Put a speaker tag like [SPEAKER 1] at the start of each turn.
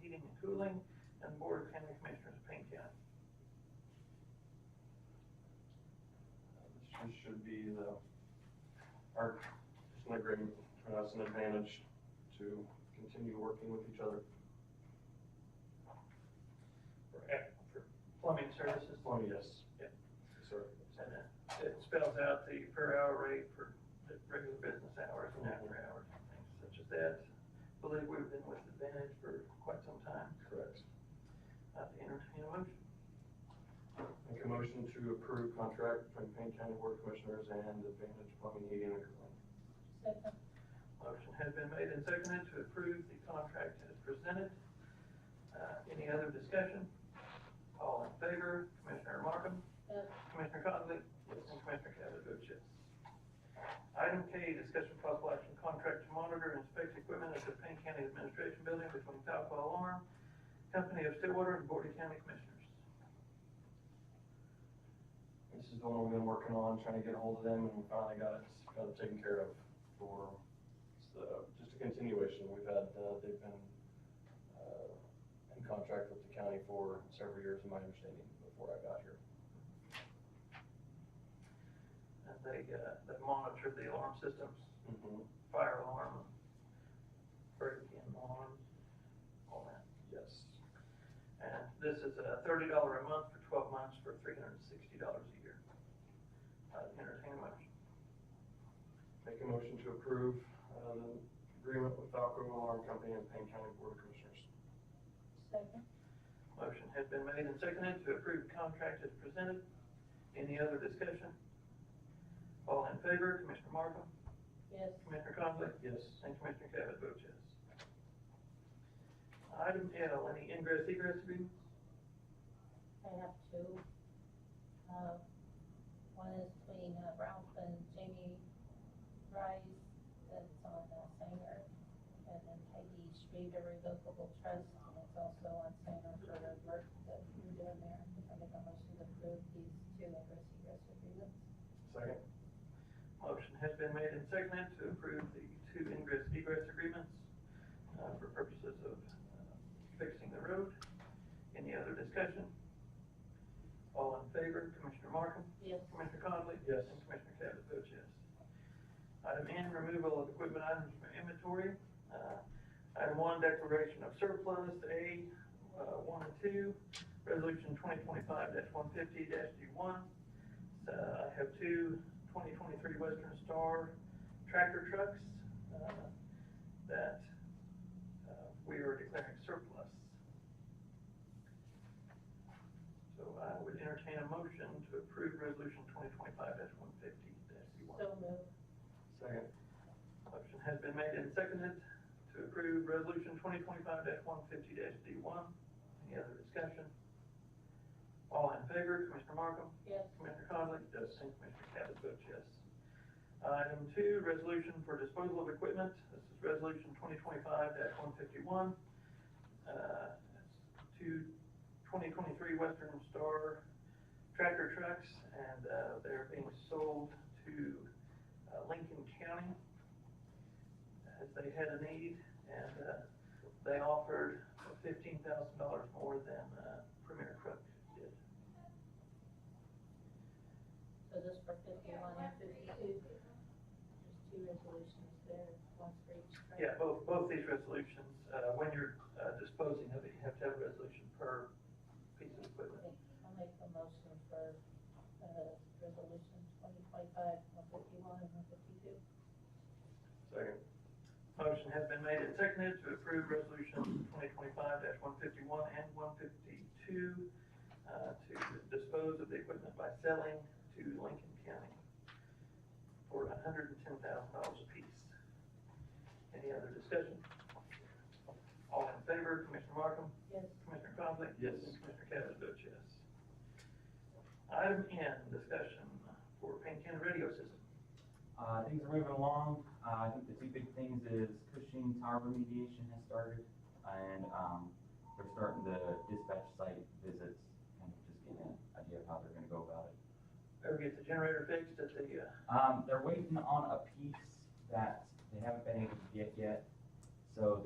[SPEAKER 1] heating and cooling, and Board of County Commissioners of Payne County.
[SPEAKER 2] This should be the, our, it's an agreement for us, an advantage to continue working with each other.
[SPEAKER 1] for ec- for plumbing services.
[SPEAKER 2] Oh, yes.
[SPEAKER 1] Yeah.
[SPEAKER 2] Sorry.
[SPEAKER 1] And it- it spells out the per hour rate for the regular business hours and after hours and things such as that. Believe we've been with Advantage for quite some time.
[SPEAKER 2] Correct.
[SPEAKER 1] Uh, entertain a motion.
[SPEAKER 2] Make a motion to approve contract between Payne County Board of Commissioners and Advantage Plumbing, Heating, and Cooling.
[SPEAKER 3] Second,
[SPEAKER 1] Motion has been made and seconded to approve the contract as presented. Uh, any other discussion? All in favor, Commissioner Markham?
[SPEAKER 3] yes,
[SPEAKER 1] Commissioner Conley? And Commissioner Cavanaugh votes yes. Item K, discussion of possible action contract to monitor and inspect equipment at the Payne County Administration Building between Taupo Alarm, Company of Stillwater and Board of County Commissioners.
[SPEAKER 2] This is the one we've been working on, trying to get hold of them, and we finally got it, got it taken care of for, so, just a continuation. We've had, uh, they've been, uh, in contract with the county for several years, in my understanding, before I got here.
[SPEAKER 1] And they, uh, they monitor the alarm systems,
[SPEAKER 2] Mm-hmm.
[SPEAKER 1] fire alarm, break-in alarm, all that.
[SPEAKER 2] Yes.
[SPEAKER 1] And this is a thirty dollar a month for twelve months for three hundred and sixty dollars a year. Uh, entertain a motion.
[SPEAKER 2] Make a motion to approve, uh, the agreement with Falco Alarm Company and Payne County Board of Commissioners.
[SPEAKER 3] second,
[SPEAKER 1] Motion has been made and seconded to approve contract as presented. Any other discussion? All in favor, Commissioner Markham,
[SPEAKER 3] yes,
[SPEAKER 1] Commissioner Conley,
[SPEAKER 2] Yes.
[SPEAKER 1] and Commissioner Cavanaugh votes yes. Item L, any ingress egress agreements?
[SPEAKER 3] I have two. Uh, one is between uh, Ralph and Jamie Rice, that's on uh, Sanger, and then Peggy Street, a revocable trust, and it's also on Sanger for the work that you're doing there. I make a motion to approve these two ingress egress agreements.
[SPEAKER 2] Second?
[SPEAKER 1] Motion has been made and seconded to approve the two ingress egress agreements uh, for purposes of uh, fixing the road. Any other discussion? All in favor, Commissioner Markham,
[SPEAKER 3] Yes,
[SPEAKER 1] Commissioner Conley?
[SPEAKER 2] Yes.
[SPEAKER 1] And Commissioner Cavanaugh votes yes. Item N, removal of equipment items from inventory. Uh, Item one, declaration of surplus, A, uh, one and two, resolution twenty twenty-five one fifty D one. Uh, I have two 2023 Western Star tractor trucks, uh, that, uh, we are declaring surplus. So I would entertain a motion to approve resolution twenty twenty-five one fifty one.
[SPEAKER 3] so moved,
[SPEAKER 2] Second?
[SPEAKER 1] Motion has been made and seconded to approve resolution twenty twenty-five one fifty D one. Any other discussion? All in favor, Commissioner Markham?
[SPEAKER 3] yes,
[SPEAKER 1] Commissioner Conley?
[SPEAKER 2] Yes.
[SPEAKER 1] And Commissioner Cavanaugh votes yes. Item two, resolution for disposal of equipment. This is resolution twenty twenty-five one fifty-one. Uh, it's two 2023 Western Star tractor trucks, and, uh, they're being sold to uh, Lincoln County as they had a need, and, uh, they offered fifteen thousand dollars more than, uh, Premier Truck did.
[SPEAKER 3] so this for fifty-one and fifty-two. There's two resolutions there, one for each. right?
[SPEAKER 1] Yeah, both, both these resolutions, uh, when you're uh, disposing of it, you have to have a resolution per piece of equipment.
[SPEAKER 3] I'll make a motion for, uh, resolution twenty twenty-five, one fifty-one and one fifty-two.
[SPEAKER 2] Second.
[SPEAKER 1] Motion has been made and seconded to approve resolutions twenty twenty-five one fifty-one and one fifty-two, uh, to dispose of the equipment by selling to Lincoln County for hundred and ten thousand dollars apiece. Any other discussion? All in favor, Commissioner Markham?
[SPEAKER 3] Yes,
[SPEAKER 1] Commissioner Conley?
[SPEAKER 2] Yes.
[SPEAKER 1] And Commissioner Cavanaugh votes yes. Item N, discussion for Payne County radio system.
[SPEAKER 4] Uh, things are moving along. Uh, I think the two big things is Cushing Tower remediation has started, and, um, they're starting the dispatch site visits, kind of just getting an idea of how they're gonna go about it.
[SPEAKER 1] Ever get the generator fixed at the, uh,
[SPEAKER 4] Um, they're waiting on a piece that they haven't been able to get yet, so